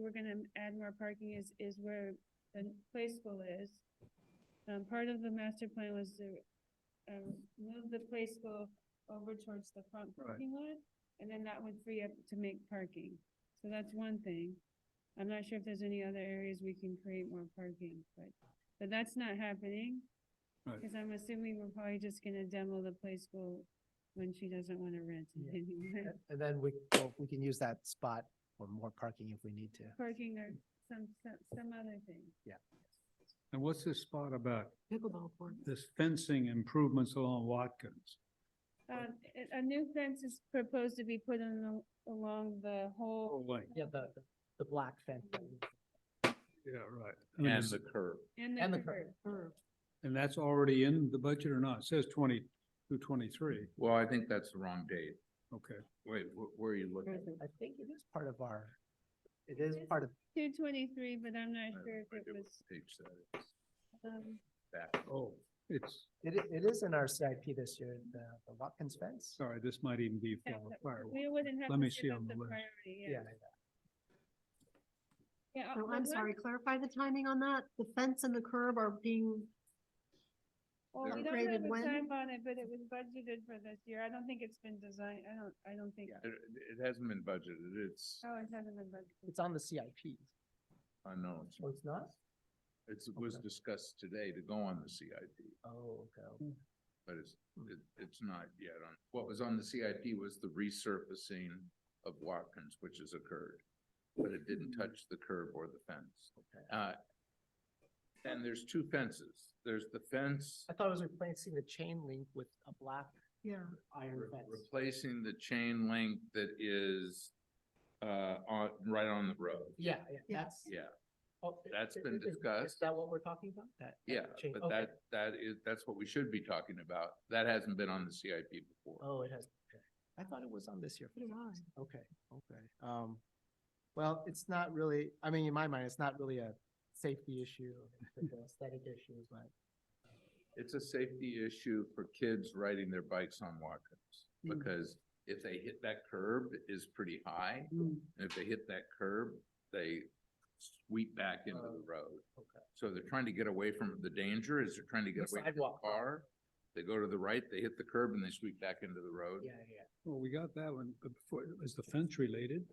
we're gonna add more parking is, is where the play school is. Um, part of the master plan was to, um, move the play school over towards the front Right. parking lot, and then that would free up to make parking. So that's one thing. I'm not sure if there's any other areas we can create more parking, but, but that's not happening. Right. Cause I'm assuming we're probably just gonna demo the play school when she doesn't wanna rent it Yeah. anymore. And then we, well, we can use that spot for more parking if we need to. Parking or some, some, some other thing. And what's this spot about, Pickleball court. this fencing improvements along Watkins? Um, a- a new fence is proposed to be put in al- along the whole, Oh, wait, Yeah, the, the- the black fence. yeah, right. I mean, And it's- the curb. and And the the curb. curve. And that's already in the budget or not? It says twenty-two, twenty-three, Well, I think that's the wrong date. okay. Wait, wh- where are you looking? I think it is part of our, it is part of, Two twenty-three, but I'm I not have no sure if it idea what was, page that is. um, Back. Oh, it's, it, i- it is in our CIP this year, the, the Watkins fence. sorry, this might even be yeah, for that- fireworks. we wouldn't have Let me to see give up on the the list. priority, Yeah, yeah. Yeah, So uh, Oh, I'm the sorry, one- clarify the timing on that. The fence and the curb are being, Well, we They're- don't have Rated a when? time on it, but it was budgeted for this year. I don't think it's been designed, I don't, I don't think, It, it hasn't been budgeted. It's oh, it hasn't been budgeted. it's on the CIP. unknown. Oh, it's not? It was Okay. discussed today to go on the CIP, Oh, okay. but it's, it, it's not yet on. What was on the CIP was the resurfacing of Watkins, which has occurred. But it didn't Hmm. touch the curb or the fence. Uh, and there's two fences. There's the fence I thought it was replacing the chain link with a black yeah, iron Re- fence. Replacing the chain link that is, uh, on, right on the road. Yeah, yeah, Yeah. that's. Yeah, oh, i- That's i- been i- is- Is discussed. that what we're talking about? That? that yeah, chain- but okay. that, that is, that's what we should be talking about. That hasn't been on the CIP before. Oh, it has. okay. I thought it was on this year. for Neither some did I. reason. Okay, okay. Um, well, it's not really, I mean, in my mind, it's not really a safety issue, it's an aesthetic issue, but It's a safety issue for kids riding their bikes on Watkins. Mm. Because if they hit that curb, it is pretty high. Mm. And if they hit that curb, they sweep back into the road. Oh, okay. So they're trying to get away from the danger, is they're trying to get The away from the sidewalk. car. They go to the right, they hit the curb and they sweep back into the road. Yeah, yeah, Well, we got that one, but before, is the fence related?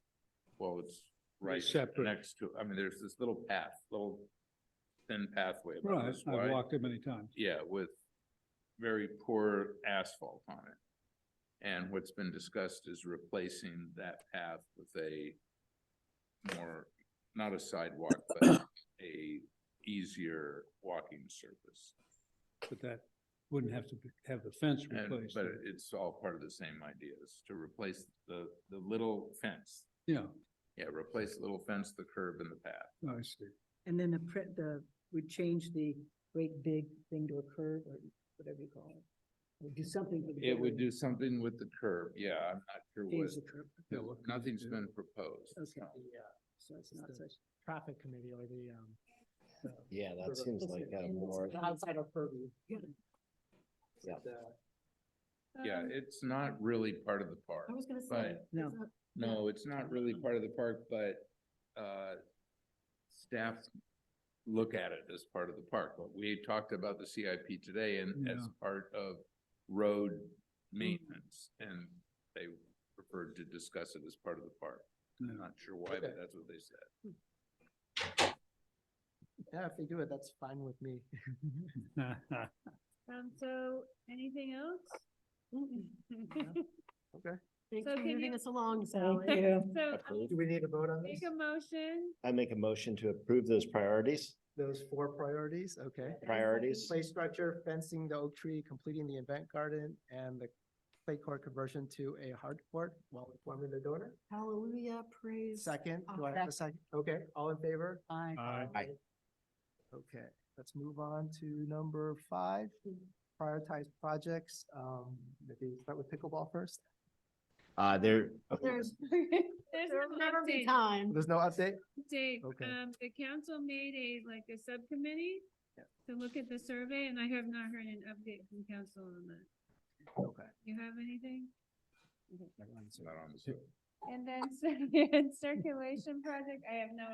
Well, it's right separate. next to, I mean, there's this little path, little thin pathway. about Right, this I've wide. walked it many times. Yeah, with very poor asphalt on it. And what's been discussed is replacing that path with a more, not a sidewalk, but a easier walking surface. But that wouldn't have to be- have the fence And, replaced. but it's all part of the same ideas, to replace the, the little fence. Yeah, Yeah, replace the little fence, the curb and the path. I see. And then the pre, the, we change the great big thing to a curve or whatever you call it. Or do something. to the It would building, do something with the curb, yeah, I'm not sure what, Change the curve. Yeah, what can you nothing's do? been proposed. Okay, the, uh, so it's not It's the- such. traffic committee or the, um, the- Yeah, Sort that of seems implicit like a in this more, the outside of uh, purview. Yeah. Yeah. The- Yeah, Um, it's not really part of the park, I was gonna say. but, No. Oh, is that- no, it's not really part of the park, but, uh, staff look at it as part of the park, but we talked about the CIP today and as Yeah. part of road maintenance, and they preferred to discuss it as part of the park. I'm Yeah. not sure why, but Okay. that's what they said. Yeah, if they do it, that's fine with me. Um, so, anything else? Okay. Thanks So for can moving you- us along, Thank Sally. you. So, Approved. Do we need a vote on make this? a motion, I make a motion to approve those priorities, Those four priorities, okay. priorities. Play structure, fencing the oak tree, completing the event garden, and the play court conversion to a hard court while informing the donor. Hallelujah, praise. Second, do I have a second? Okay, all in favor? Aye. Aye. Aye. Okay, let's move on to number five, prioritize projects. Um, maybe start with pickleball first. Uh, there, There's, there's there'll an never be update. time. There's no update? Dave, Okay. um, the council made a, like, a subcommittee Yeah. to look at the survey, and I have not heard an update from council on that. Okay. You have anything? It's not on the. And then, and circulation project, I have no